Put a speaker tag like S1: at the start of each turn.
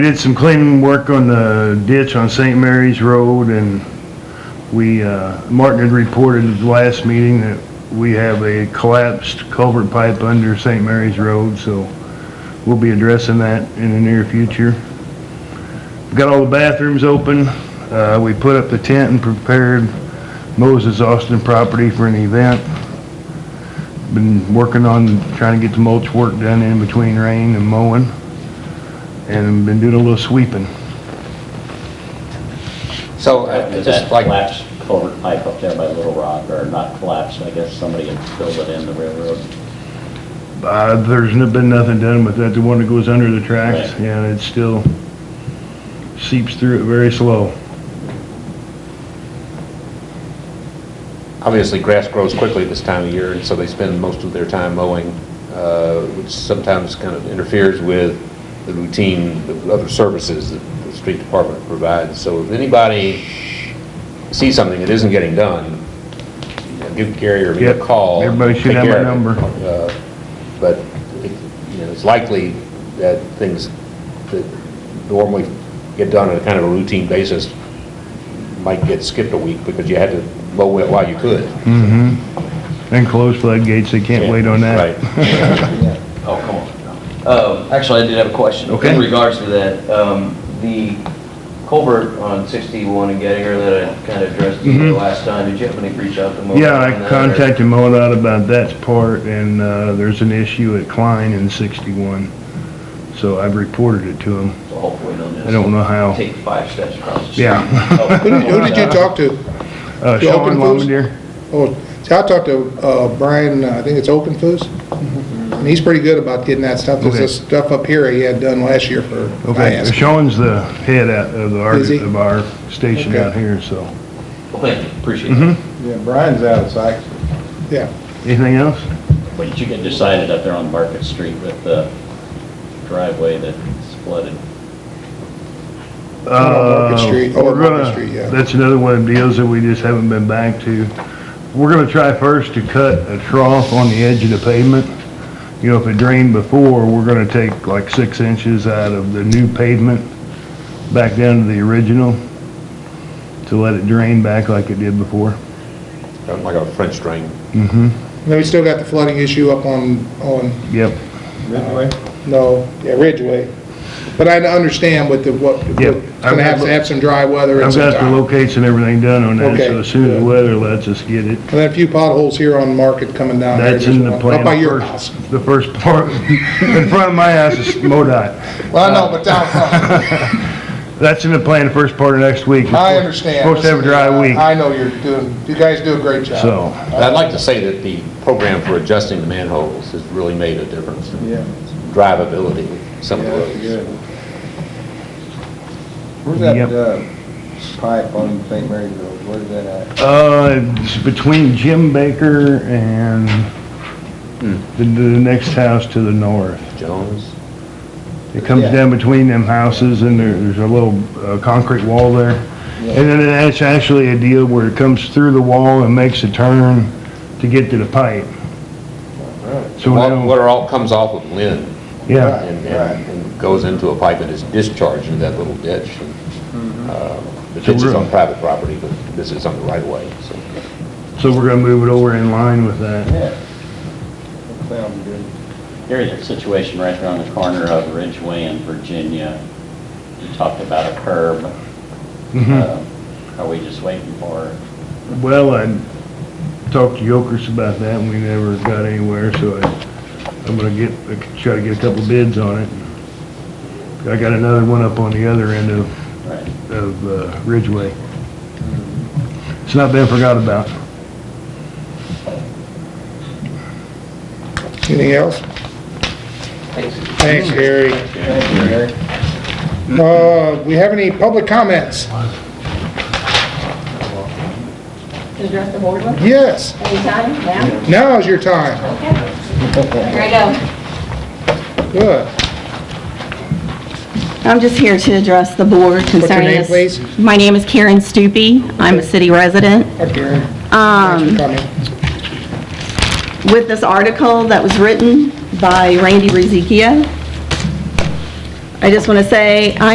S1: Did some cleaning work on the ditch on St. Mary's Road and we, uh, Martin had reported at the last meeting that we have a collapsed culvert pipe under St. Mary's Road, so we'll be addressing that in the near future. Got all the bathrooms open. Uh, we put up the tent and prepared Moses Austin property for an event. Been working on trying to get the mulch work done in between rain and mowing and been doing a little sweeping.
S2: So, uh,
S3: After
S2: just
S3: that
S2: like,
S3: collapsed culvert pipe up there by Little Rock, or not collapsed, I guess somebody had filled it in the railroad.
S1: Uh, there's n- been nothing done with that, the one that goes under the tracks,
S3: Right.
S1: yeah, it still seeps through it very slow.
S4: Obviously, grass grows quickly this time of year, and so they spend most of their time mowing, uh, which sometimes kind of interferes with the routine of other services that the street department provides. So if anybody sees something that isn't getting done, you know, give Gary or me a
S1: Yep.
S4: call.
S1: Everybody should
S4: Take
S1: have my
S4: care of it.
S1: number.
S4: Uh, But, it- you know, it's likely that things that normally get done on a kind of a routine basis might get skipped a week because you had to mow it while you could.
S1: And closed floodgates, they can't wait on that.
S4: Right.
S5: Oh, come on. Um, Actually, I did have a question.
S1: Okay.
S5: In regards to that, um, the culvert on 61 in Gettier that I kind of addressed to you last time, did you happen to reach out to Mo?
S1: Mm-hmm. Yeah,
S5: on that,
S1: I
S5: or-
S1: contacted MoDOT about that part, and, uh, there's an issue at Klein in sixty-one, so I've reported it to them.
S5: So Hopefully they'll just.
S1: I don't know how.
S5: Take five steps across the street.
S1: Yeah.
S5: Oh,
S6: Who did- who did you talk to?
S1: Uh,
S6: The
S1: Sean
S6: open foods?
S1: Lomondere,
S6: Oh, see, I talked to uh, Brian, uh, I think it's Open Foods, and he's pretty good about getting that stuff. There's
S1: Mm-hmm. Okay.
S6: this stuff up here he had done last year for
S1: okay,
S6: IASC.
S1: Sean's the head out of the, our-
S6: Is he?
S1: of our station
S6: Okay.
S1: out here, so.
S5: Well, Thank you, appreciate
S1: Mm-hmm.
S5: it.
S7: Yeah, Brian's out of sight.
S6: Yeah,
S1: Anything else?
S3: But you get decided up there on Market Street with the driveway that's flooded.
S6: Market
S1: Uh,
S6: Street, oh,
S1: we're
S6: Market
S1: gonna-
S6: Street, yeah.
S1: That's another one of the deals that we just haven't been back to. We're gonna try first to cut a trough on the edge of the pavement. You know, if it drained before, we're gonna take like six inches out of the new pavement back down to the original to let it drain back like it did before.
S4: Like a French drain.
S1: Mm-hmm,
S6: and then we still got the flooding issue up on, on,
S1: yep.
S7: Ridgeway?
S6: no, yeah, Ridgeway. But I understand with the, what, it's
S1: Yep.
S6: gonna have to have some dry weather and
S1: I've
S6: some
S1: got the
S6: time.
S1: locates and everything done on that, so
S6: Okay.
S1: as soon as the weather lets us get it.
S6: And then a few potholes here on Market coming down. there,
S1: That's in the
S6: just
S1: plan.
S6: Up by your
S1: First-
S6: house.
S1: The first part, in front of my house is MoDOT.
S7: Well, I know, but down front,
S1: That's in the plan, the first part of next week.
S7: I understand.
S1: Supposed to have a dry week,
S7: I know you're doing, you guys do a great job.
S1: so,
S4: But I'd like to say that the program for adjusting the manholes has really made a difference in
S7: Yeah,
S4: drivability of some
S7: yeah,
S4: of the
S7: that's
S4: roads.
S7: good. Where's that,
S1: Yep.
S7: uh, pipe on St. Mary's Road, where's that at?
S1: uh, it's between Jim Baker and the, the next house to the north.
S4: Jones?
S1: It comes
S7: Yeah.
S1: down between them houses and there, there's a little, uh, concrete wall there. And then it's actually a deal where it comes through the wall and makes a turn to get to the pipe. So
S4: What what
S1: now,
S4: are all, comes off of Lynn
S1: oh. yeah,
S4: and,
S7: Right.
S4: and and goes into a pipe and is discharged into that little ditch.
S7: Mm-hmm.
S4: And, uh, The
S1: So
S4: ditch is
S1: we're-
S4: on private property, but this is on the right of way, so.
S1: so we're gonna move it over in line with that.
S7: Yeah. That sounds good.
S3: There's a situation right there on the corner of Ridgeway and Virginia. You talked about a curb.
S1: Mhm.
S3: Uh, Are we just waiting for,
S1: Well, I talked to Yokers about that, and we never got anywhere, so I, I'm gonna get, try to get a couple bids on it. I got another one up on the other end of,
S3: right?
S1: of uh, Ridgeway. It's not been forgot about.
S6: Anything else? Thanks, Gary.
S7: Hmm. Thank you, Gary.
S6: Uh, we have any public comments?
S8: Address the board one?
S6: Yes,
S8: Anytime, now?
S6: now is your time.
S8: Okay. Here I go.
S6: Good.
S8: I'm just here to address the board
S6: your
S8: concerning this.
S6: name, please?
S8: My name is Karen Stupi. I'm a city resident.
S6: Hi, Karen. Thanks for
S8: Um,
S6: coming.
S8: with this article that was written by Randy Rizicchia, I just want to say,